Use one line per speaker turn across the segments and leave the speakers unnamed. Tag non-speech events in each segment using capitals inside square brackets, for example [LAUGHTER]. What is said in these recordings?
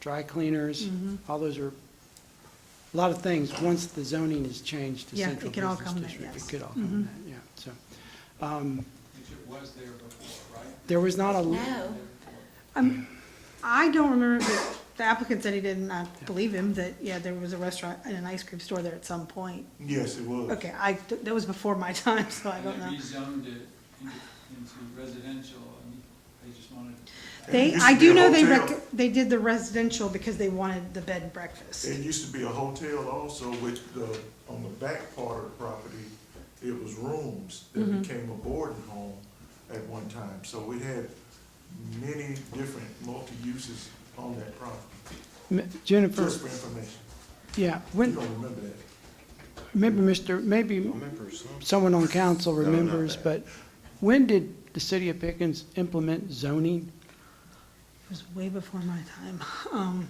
dry cleaners,
Mm-hmm.
all those are, a lot of things, once the zoning is changed to
Yeah, it
central
can all
business
come in,
district, it
yes. Mm-hmm.
could all come in that, yeah, so. um,
Which it was there before, right?
There was not a,
No,
I don't remember, but the applicant said he did not believe him, that, yeah, there was a restaurant and an ice cream store there at some point.
Yes, it was.
Okay, I, that was before my [LAUGHS] time, so I
And
don't
they
know.
rezoned it into into residential, and they just wanted,
They,
It used
I
to be
do
a
know they,
hotel.
rec- they did the residential because they wanted the bed and breakfast.
It used to be a hotel also, which the, on the back part of the property, it was rooms that
Mm-hmm.
became a boarding home at one time. So we had many different multi-uses on that property,
m- Jennifer,
just for information.
yeah,
You
when,
don't remember that?
maybe Mr., maybe someone on council
not
remembers,
that.
but when did the city of Pickens implement zoning?
It was way before my time. Um,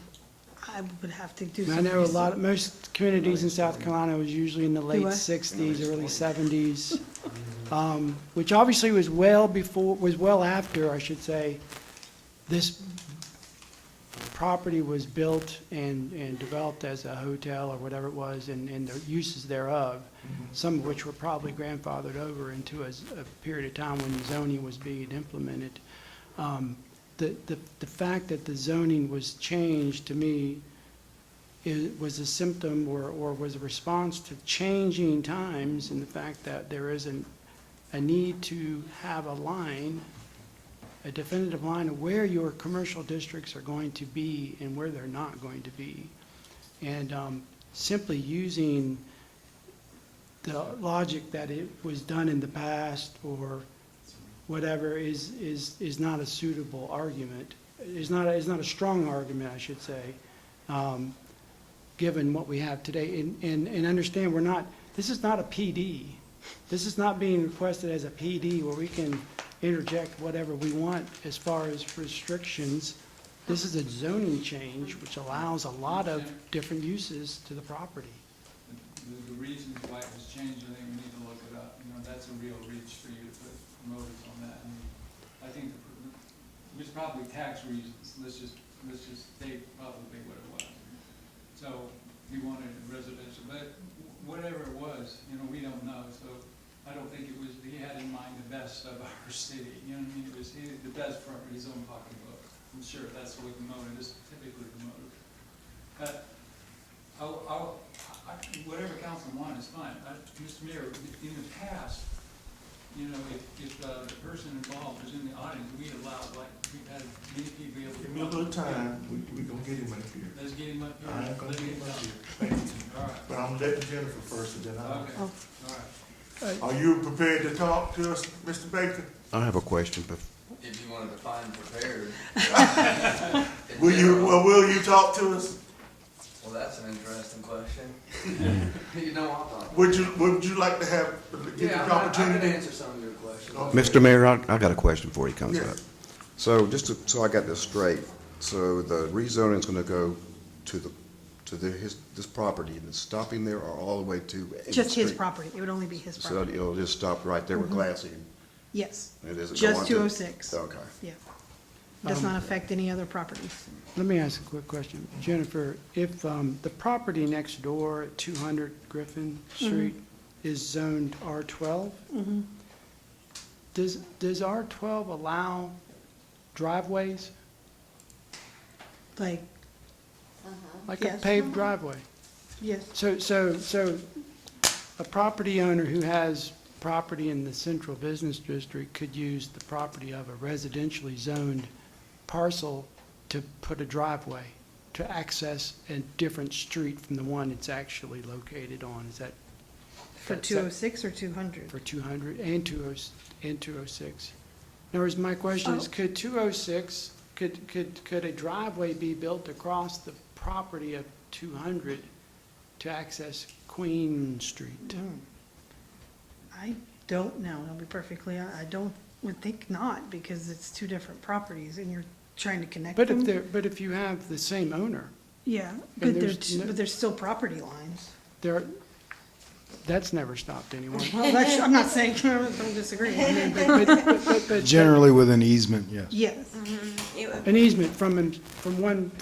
I would have to do
I
some
know a lot,
research.
of most communities in South Carolina was usually in the late
what?
sixties, early seventies, um, which obviously was well before, was well after, I should say, this property was built and, and developed as a hotel or whatever it was, and, and the uses thereof, some of which were probably grandfathered over into a, s- a period of time when zoning was being implemented. Um, The, the, the fact that the zoning was changed, to me, it was a symptom or, or was a response to changing times and the fact that there is an, a need to have a line, a definitive line of where your commercial districts are going to be and where they're not going to be. And, um, simply using the logic that it was done in the past or whatever is, is, is not a suitable argument, is not, a- is not a strong argument, I should say, um, given what we have today. And, and, and understand, we're not, this is not a PD. This is not being requested as a PD where we can interject whatever we want as far as restrictions. This is a zoning change which allows a lot of different uses to the property.
the- the reasons why it was changed, I think we need to look it up. You know, that's a real reach for you to put promoters on that. And I think the- there's probably tax reasons, let's just, let's just state probably what it was. So we wanted residential, but whatever it was, you know, we don't know. So I don't think it was, he had in mind the best of [LAUGHS] our city, you know what I mean? It was, he, the best from his own pocketbook. I'm sure that's what the motive is, typically the motive. But I'll, I'll, I, whatever council want is fine. I, Mr. Mayor, in the past, you know, if, if uh, the person involved was in the audience, we allowed, like, we've had many people be able to.
Give me a little time, we, we gonna get him up here.
Let's get him up here.
I ain't gonna
Let's
get
get him
him up
down.
here, thank you.
All right,
But I'm letting Jennifer first, and then I'll.
okay,
Oh.
all
Are you prepared to talk to us, Mr. Baker?
I have a question, but
If you want to define prepared.
[LAUGHS]
in
Will you,
general,
well, will you talk to us?
Well, that's an interesting question. [LAUGHS] You know, I'm not.
Would you, would you like to have, give
Yeah,
the
I'm not- I can
opportunity?
answer some of your questions.
Okay.
Mr. Mayor, I, I got a question before he comes
Yeah.
up. So just to, so I got this straight, so the rezoning's gonna go to the, to the, his, this property, and it's stopping there or all the way to? Eighth
Just his
Street?
property. It would only be his
So
property.
it'll just stop right there with Glassy,
Yes,
and it isn't going to?
just two oh six.
Okay.
Yeah. Does
Um,
not affect any other properties.
Let me ask a quick question. Jennifer, if um, the property next door at 200 Griffin Street is zoned R12, does, does R12 allow driveways,
Like,
like a
Yes.
paved driveway?
yes,
So, so, so a property owner who has property in the central business district could use the property of a residentially zoned parcel to put a driveway, to access a different street from the one it's actually located on, is that?
for
that's-
two oh six or two hundred.
For two hundred and two oh, and two oh six. In other words, my question is,
Oh.
could two oh six, could, could, could a driveway be built across the property of two hundred to access Queen Street?
I don't know, I'll be perfectly, hon- I don't, would think not, because it's two different properties and you're trying to connect them.
But if they're, but if you have the same owner,
Yeah, but
there's
there's,
no-
but there's still property lines.
there, that's never stopped anyone.
Well, that's, I'm not saying, [LAUGHS] I'm disagreeing, I mean,
[LAUGHS]
but
But- but- but- but
Generally with an easement, yes.
yes.
it would
An easement from, from one,